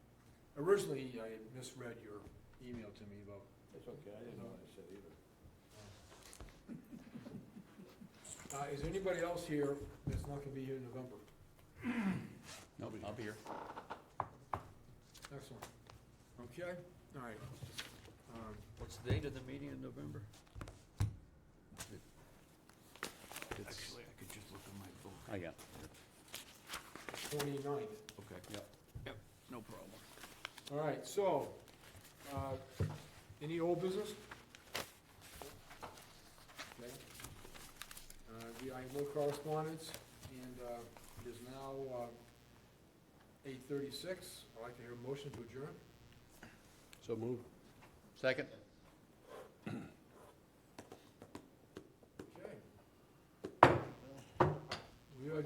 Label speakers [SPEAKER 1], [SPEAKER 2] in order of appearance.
[SPEAKER 1] Originally, I misread your email to me about,
[SPEAKER 2] It's okay, I didn't know what I said either.
[SPEAKER 1] uh, is there anybody else here that's not gonna be here in November?
[SPEAKER 3] Nope, I'll be here.
[SPEAKER 1] Excellent. Okay, all right. Um,
[SPEAKER 3] What's the date of the meeting in November? It's,
[SPEAKER 4] Actually, I could just look at my book.
[SPEAKER 3] oh, yeah,
[SPEAKER 1] Twenty-ninth.
[SPEAKER 4] Okay,
[SPEAKER 3] yep.
[SPEAKER 4] no problem.
[SPEAKER 1] All right, so, uh, any old business? Okay. Uh, we, I have no correspondence, and, uh, it is now, uh, eight thirty-six. I'd like to hear a motion to adjourn.
[SPEAKER 3] So move. Second?